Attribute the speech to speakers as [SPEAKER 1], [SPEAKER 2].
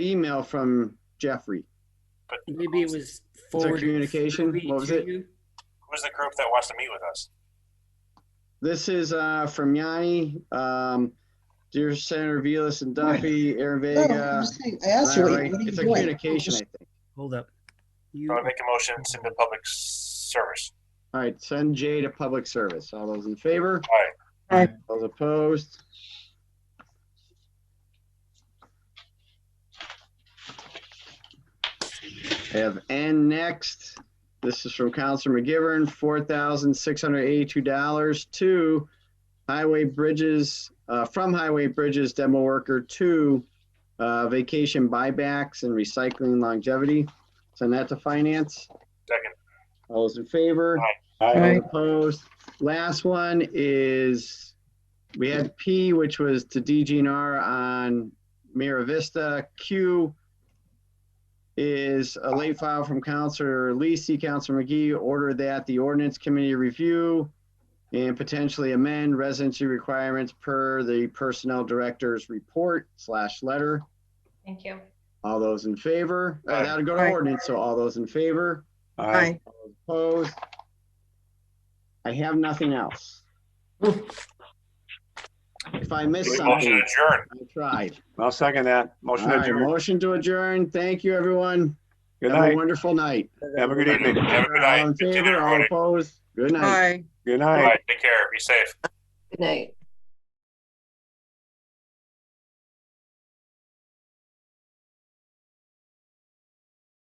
[SPEAKER 1] email from Jeffrey.
[SPEAKER 2] Maybe it was
[SPEAKER 1] there
[SPEAKER 2] forwarded.
[SPEAKER 1] communication?
[SPEAKER 2] freely
[SPEAKER 1] What was
[SPEAKER 2] to
[SPEAKER 1] it?
[SPEAKER 2] you?
[SPEAKER 3] Who's the group that wants to meet with us?
[SPEAKER 1] This is uh, from Yanni. Um, dear Senator Vilas and Duffy, Aaron
[SPEAKER 4] No,
[SPEAKER 1] Vega.
[SPEAKER 4] Oh, I'm just saying- I asked you, what
[SPEAKER 1] Larry.
[SPEAKER 4] you- what are you
[SPEAKER 1] It's a
[SPEAKER 4] doing?
[SPEAKER 1] communication, I think.
[SPEAKER 2] Hold up. You,
[SPEAKER 3] I want to make a motion, to send to public service.
[SPEAKER 1] All right, send Jay to public service. All those in favor?
[SPEAKER 3] Aye.
[SPEAKER 5] Aye.
[SPEAKER 1] Those opposed? I Have N next. This is from Counselor McGivern, four thousand six hundred eighty-two dollars to Highway Bridges, uh, from Highway Bridges demo worker to uh, vacation buybacks and recycling longevity. Send that to finance.
[SPEAKER 3] Second,
[SPEAKER 1] All those in favor?
[SPEAKER 3] Aye.
[SPEAKER 5] Aye.
[SPEAKER 1] Opposed. Last one is, we had P, which was to DGNR on Mira Vista. Q is a late file from Counselor Lisi, Counselor McGee, order that the ordinance committee review and potentially amend residency requirements per the personnel director's report slash letter.
[SPEAKER 6] Thank you.
[SPEAKER 1] All those in favor? Uh,
[SPEAKER 3] Aye.
[SPEAKER 1] That'll go to
[SPEAKER 5] Aye.
[SPEAKER 1] ordinance, so all those in favor?
[SPEAKER 5] Aye.
[SPEAKER 1] Opposed? I have nothing else. If I missed
[SPEAKER 3] motion
[SPEAKER 1] something,
[SPEAKER 3] adjourned.
[SPEAKER 1] I tried.
[SPEAKER 7] I'll second that.
[SPEAKER 1] All
[SPEAKER 7] Motion
[SPEAKER 1] right,
[SPEAKER 7] adjourned.
[SPEAKER 1] motion to adjourn. Thank you, everyone.
[SPEAKER 7] Good
[SPEAKER 1] Have a
[SPEAKER 7] night.
[SPEAKER 1] wonderful night.
[SPEAKER 7] Have a good evening.
[SPEAKER 3] Have a good night.
[SPEAKER 1] All in
[SPEAKER 3] Good
[SPEAKER 1] favor, all
[SPEAKER 3] everybody.
[SPEAKER 1] opposed? Good night.
[SPEAKER 5] Aye.
[SPEAKER 7] Good
[SPEAKER 3] All
[SPEAKER 7] night.
[SPEAKER 3] right, take care. Be safe.
[SPEAKER 6] Good night.